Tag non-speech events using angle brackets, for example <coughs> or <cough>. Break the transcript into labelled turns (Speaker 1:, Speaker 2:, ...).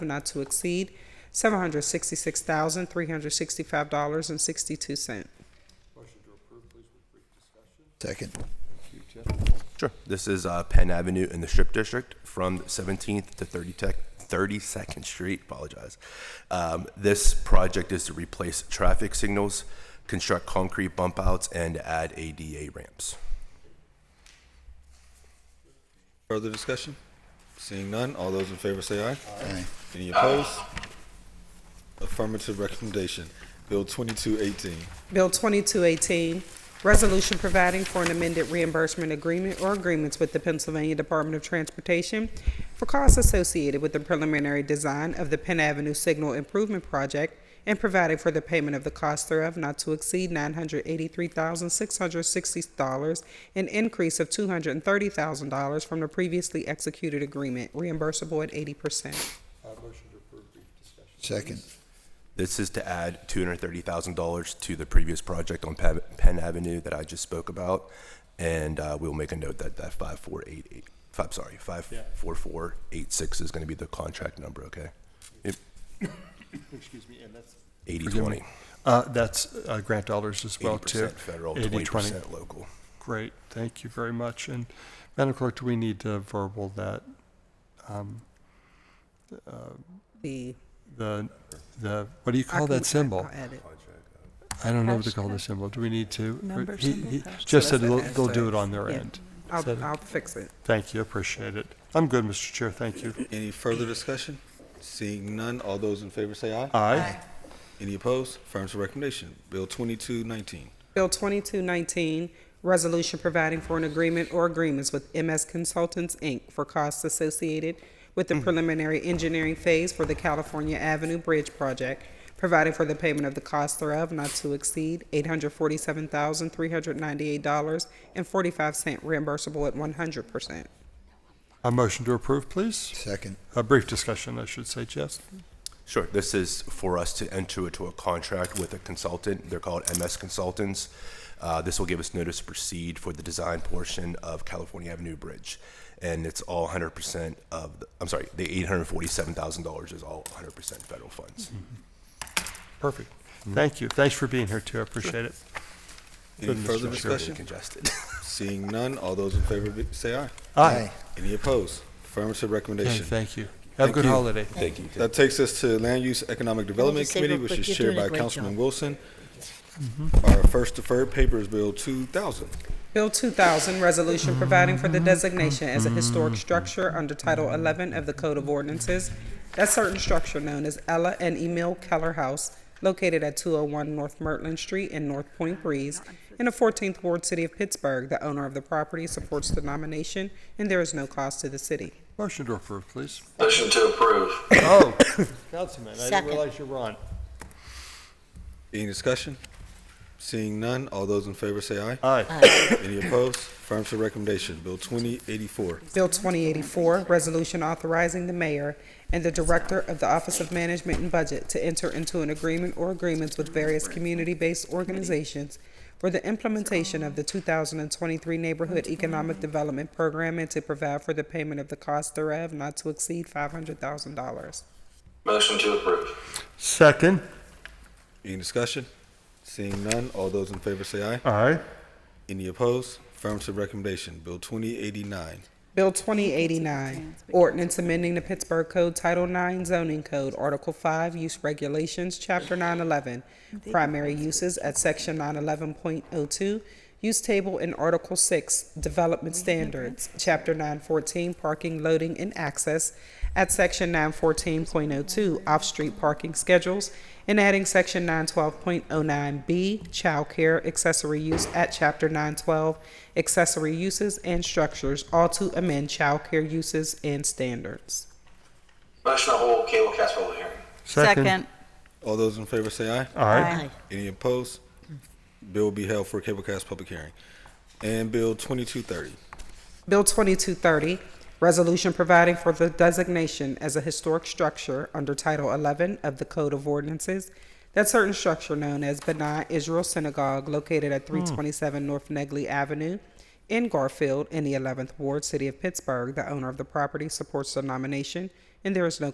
Speaker 1: not to exceed seven hundred sixty-six thousand, three hundred sixty-five dollars and sixty-two cent.
Speaker 2: Second.
Speaker 3: Sure. This is uh, Penn Avenue in the Strip District from 17th to 30 tech, 32nd Street. Apologize. Um, this project is to replace traffic signals, construct concrete bump outs, and add ADA ramps.
Speaker 4: Further discussion? Seeing none, all those in favor say aye.
Speaker 2: Aye.
Speaker 4: Any opposed? Affirmative recommendation. Bill twenty-two eighteen.
Speaker 1: Bill 2218, Resolution Providing for an Amended Reimbursement Agreement or Agreements with the Pennsylvania Department of Transportation for Costs Associated with the Preliminary Design of the Penn Avenue Signal Improvement Project and Providing for the Payment of the Cost thereof not to exceed $983,660, an increase of $230,000 from the previously executed agreement, reimbursable at 80%.
Speaker 2: Second.
Speaker 3: This is to add $230,000 to the previous project on Pe- Penn Avenue that I just spoke about. And uh, we'll make a note that that 5488, five, sorry, 54486 is going to be the contract number, okay? Yep.
Speaker 5: Excuse me, and that's.
Speaker 3: 8020.
Speaker 5: Uh, that's uh, grant dollars as well, too.
Speaker 3: 80% federal,
Speaker 5: 80, 20.
Speaker 3: 20% local.
Speaker 5: Great, thank you very much. And Madam Clerk, do we need to verbal that,
Speaker 1: The
Speaker 5: the, the, what do you
Speaker 1: I
Speaker 5: call
Speaker 1: can-
Speaker 5: that symbol?
Speaker 1: I'll add it.
Speaker 5: I don't know what to call the symbol. Do we need to? Or he- he Just said they'll, they'll do it on their
Speaker 1: Yeah.
Speaker 5: end. Said it.
Speaker 1: I'll, I'll fix it.
Speaker 5: Thank you, appreciate it. I'm good, Mr. Chair, thank you.
Speaker 4: Any further discussion? Seeing none, all those in favor say aye.
Speaker 5: Aye.
Speaker 4: Any opposed? Affirmative recommendation. Bill twenty-two nineteen.
Speaker 1: Bill 2219, Resolution Providing for an Agreement or Agreements with MS Consultants, Inc. for Costs Associated with
Speaker 5: Mm.
Speaker 1: the Preliminary Engineering Phase for the California Avenue Bridge Project, Providing for the Payment of the Cost thereof not to exceed $847,398.45 reimbursable at 100%.
Speaker 5: A motion to approve, please?
Speaker 2: Second.
Speaker 5: A brief discussion, I should say, Jess.
Speaker 3: Sure. This is for us to enter into a contract with a consultant. They're called MS Consultants. Uh, this will give us notice to proceed for the design portion of California Avenue Bridge. And it's all 100% of, the, I'm sorry, the $847,000 is all 100% federal funds.
Speaker 5: Perfect. Thank you. Thanks for being here, too. I appreciate it.
Speaker 4: Any
Speaker 5: Good,
Speaker 4: further
Speaker 5: Mr. Chair.
Speaker 3: Really
Speaker 4: discussion?
Speaker 3: congested. <laughs>
Speaker 4: Seeing none, all those in favor be- say aye.
Speaker 5: Aye.
Speaker 4: Any opposed? Affirmative
Speaker 5: Hey,
Speaker 4: recommendation.
Speaker 5: Thank you. Have a
Speaker 4: Thank
Speaker 5: good
Speaker 4: you.
Speaker 5: holiday.
Speaker 3: Thank you.
Speaker 4: That takes us to Land Use Economic Development
Speaker 6: just say
Speaker 4: Committee,
Speaker 6: real
Speaker 4: which
Speaker 6: quick,
Speaker 4: is
Speaker 6: you're
Speaker 4: chaired
Speaker 6: doing
Speaker 4: by
Speaker 6: a great
Speaker 4: Councilman
Speaker 6: job.
Speaker 4: Wilson. Our first deferred paper is Bill two thousand.
Speaker 1: Bill 2000, Resolution Providing for the Designation as a Historic Structure under Title 11 of the Code of Ordinances, that certain structure known as Ella and Emil Keller House, located at 201 North Mertland Street in North Point Breeze, in the 14th Ward City of Pittsburgh. The owner of the property supports the nomination, and there is no cost to the city.
Speaker 5: Motion to approve, please.
Speaker 7: Motion to approve.
Speaker 5: Oh, <coughs> Councilman, I didn't
Speaker 6: Second.
Speaker 5: realize you were on.
Speaker 4: Any discussion? Seeing none, all those in favor say aye.
Speaker 5: Aye.
Speaker 4: Any opposed? Affirmative recommendation. Bill twenty eighty-four.
Speaker 1: Bill 2084, resolution authorizing the mayor and the director of the Office of Management and Budget to enter into an agreement or agreements with various community-based organizations for the implementation of the 2023 Neighborhood Economic Development Program and to provide for the payment of the cost thereof not to exceed $500,000.
Speaker 7: Motion to approve.
Speaker 5: Second.
Speaker 4: Any discussion? Seeing none, all those in favor say aye.
Speaker 5: Aye.
Speaker 4: Any opposed? Affirmative recommendation. Bill twenty eighty-nine.
Speaker 1: Bill 2089, ordinance amending the Pittsburgh Code Title 9 zoning code, Article 5, Use Regulations, Chapter 911, primary uses at Section 911.02, use table in Article 6, development standards, Chapter 914, parking, loading, and access at Section 914.02, off-street parking schedules, and adding Section 912.09B, childcare, accessory use at Chapter 912, accessory uses and structures, all to amend childcare uses and standards.
Speaker 7: Motion to hold cable casserole hearing.
Speaker 6: Second.
Speaker 4: All those in favor say aye.
Speaker 5: Aye.
Speaker 4: Any opposed? Bill will be held for a cablecast public hearing. And Bill twenty-two thirty.
Speaker 1: Bill 2230, Resolution Providing for the Designation as a Historic Structure under Title 11 of the Code of Ordinances, that certain structure known as Benai Israel Synagogue located at 327 North Negley Avenue in Garfield in the 11th Ward, City of Pittsburgh. The owner of the property supports the nomination, and there is no